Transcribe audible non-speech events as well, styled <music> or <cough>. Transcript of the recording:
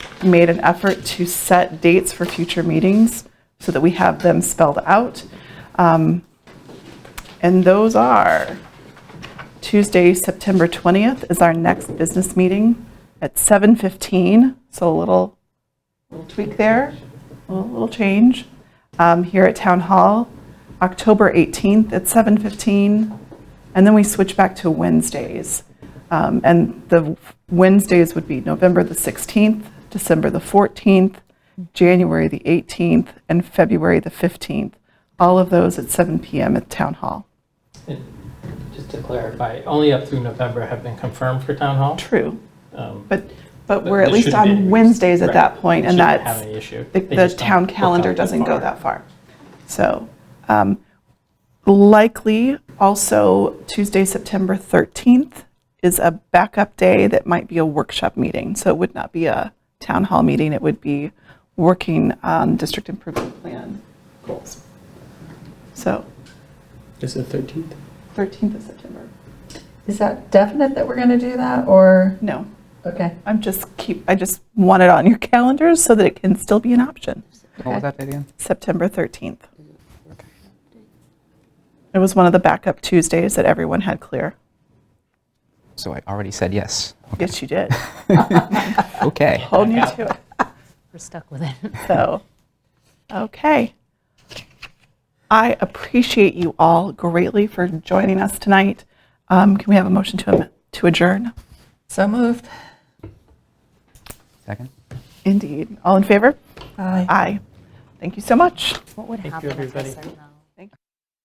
made an effort to set dates for future meetings so that we have them spelled out. Um, And those are Tuesday, September 20th is our next business meeting at 7:15, so a little little tweak there, a little little change. Um, Here at Town Hall, October 18th at 7:15, and then we switch back to Wednesdays. Um, And the Wednesdays would be November the 16th, December the 14th, January the 18th, and February the 15th, all of those at 7 PM at Town Hall. And Just to clarify, only up through November have been confirmed for town hall. True. Um, But, but But we're at there least shouldn't be any on reason. Wednesdays at Right. that point, and Shouldn't that's, have any issue. the- They the just don't town look out calendar doesn't go far. that far. So, um, likely, also Tuesday, September 13th is a backup day that might be a workshop meeting. So it would not be a town hall meeting, it would be working on district improvement plan goals. So Is it 13th? 13th of September, Is that definite that we're going to do that or, no, okay. I'm just keep, I just want it on your <laughs> calendars so that it can still be an option. What was that date again? September 13th. Mm-hmm. It was one of the backup Tuesdays that everyone had clear. So I already said yes. Yes, you <laughs> did. <laughs> Okay. Hold you to We're stuck with it. it. So, okay. I appreciate you all greatly for joining us tonight. Um, Can we have a motion to am- to adjourn? So moved. Second? Indeed. All in favor? Aye. Aye. Thank you so much. What would happen if I everybody. said no?